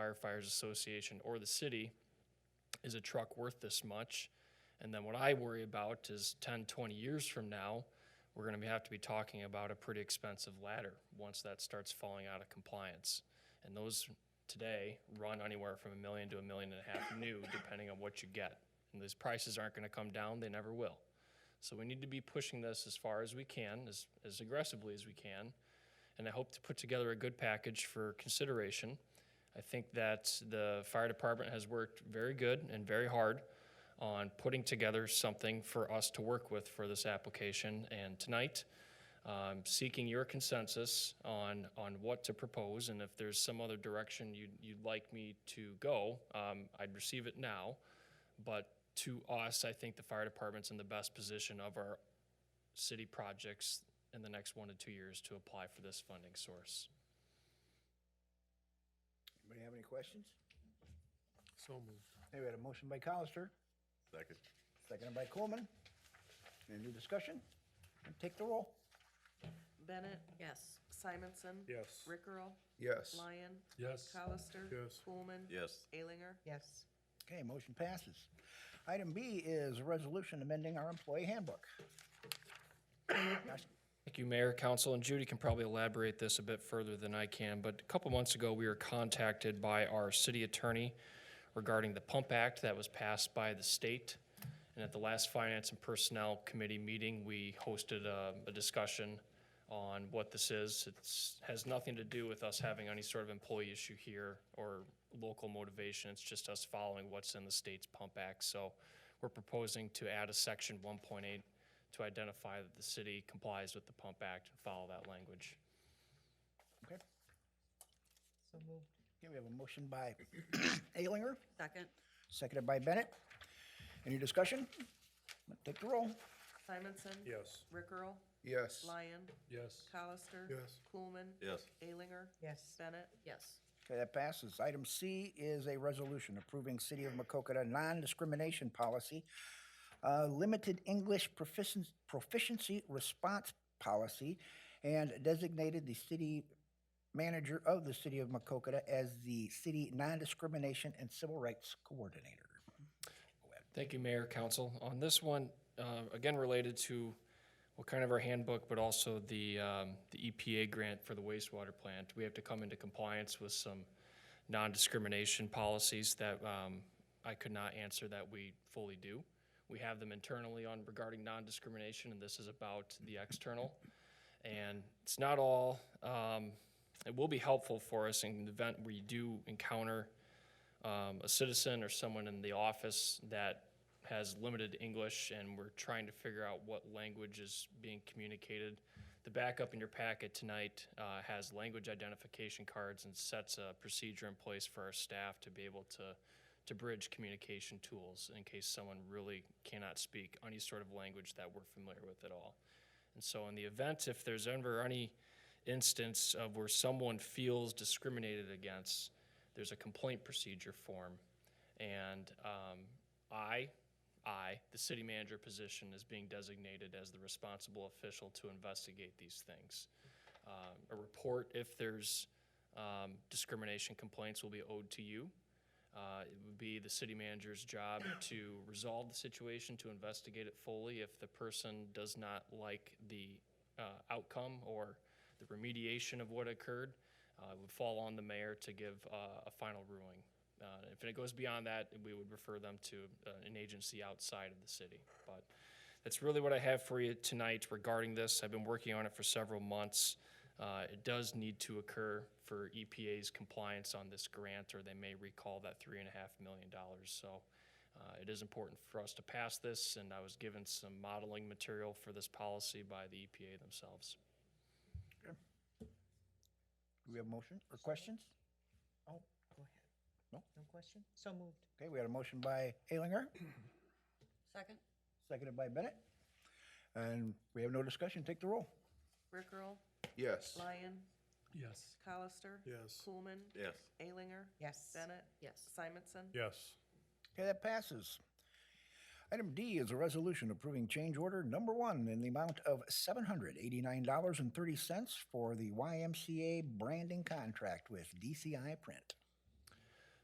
Firefighters Association or the city, is a truck worth this much? And then what I worry about is 10, 20 years from now, we're going to have to be talking about a pretty expensive ladder once that starts falling out of compliance. And those today run anywhere from a million to a million and a half new, depending on what you get. And these prices aren't going to come down, they never will. So we need to be pushing this as far as we can, as, as aggressively as we can. And I hope to put together a good package for consideration. I think that the fire department has worked very good and very hard on putting together something for us to work with for this application. And tonight, um, seeking your consensus on, on what to propose, and if there's some other direction you'd, you'd like me to go, um, I'd receive it now. But to us, I think the fire department's in the best position of our city projects in the next one to two years to apply for this funding source. Anybody have any questions? So moved. Hey, we had a motion by Colister, Second. seconded by Coleman. Any new discussion? Take the roll. Bennett? Yes. Simonson? Yes. Rickrell? Yes. Lyon? Yes. Colister? Yes. Coolman? Yes. Alinger? yes, Okay, motion passes. Item B is a resolution amending our employee handbook. Thank you, Mayor, Council, and Judy can probably elaborate this a bit further than I can, but a couple months ago, we were contacted by our city attorney regarding the Pump Act that was passed by the state. And at the last Finance and Personnel Committee meeting, we hosted a, a discussion on what this is. It's, has nothing to do with us having any sort of employee issue here or local motivation. It's just us following what's in the state's Pump Act. So we're proposing to add a section one point eight to identify that the city complies with the Pump Act and follow that language. Okay, so moved, okay, we have a motion by Alinger, Second. seconded by Bennett. Any discussion? Take the roll. Simonson? Yes. Rickrell? Yes. Lyon? Yes. Colister? Yes. Coolman? Yes. Alinger? yes, Bennett? Yes. Okay, that passes. Item C is a resolution approving City of Macokota non-discrimination policy, uh, limited English proficiency, proficiency response policy, and designated the city manager of the City of Macokota as the city non-discrimination and civil rights coordinator. Thank you, Mayor, Council. On this one, uh, again, related to what kind of our handbook, but also the, um, the EPA grant for the wastewater plant. We have to come into compliance with some non-discrimination policies that, um, I could not answer that we fully do. We have them internally on regarding non-discrimination, and this is about the external. And it's not all, um, it will be helpful for us in the event we do encounter, um, a citizen or someone in the office that has limited English and we're trying to figure out what language is being communicated. The backup in your packet tonight uh, has language identification cards and sets a procedure in place for our staff to be able to, to bridge communication tools in case someone really cannot speak any sort of language that we're familiar with at all. And so in the event, if there's ever any instance of where someone feels discriminated against, there's a complaint procedure form. And um, I, I, the city manager position is being designated as the responsible official to investigate these things. Um, A report, if there's um, discrimination complaints, will be owed to you. Uh, It would be the city manager's job to resolve the situation, to investigate it fully. If the person does not like the uh, outcome or the remediation of what occurred, uh, it would fall on the mayor to give uh, a final ruling. Uh, If it goes beyond that, we would refer them to uh, an agency outside of the city. But that's really what I have for you tonight regarding this. I've been working on it for several months. Uh, It does need to occur for EPA's compliance on this grant, or they may recall that three and a half million dollars. So uh, it is important for us to pass this, and I was given some modeling material for this policy by the EPA themselves. Do we have motion or questions? oh, go ahead. No? No question, so moved, Okay, we had a motion by Alinger, Second. seconded by Bennett. And we have no discussion. Take the roll. Rickrell? Yes. Lyon? Yes. Colister? Yes. Coolman? Yes. Alinger? yes, Bennett? Yes. Simonson? Yes. Okay, that passes. Item D is a resolution approving change order number one in the amount of seven hundred eighty-nine dollars and thirty cents for the YMCA branding contract with DCI Print.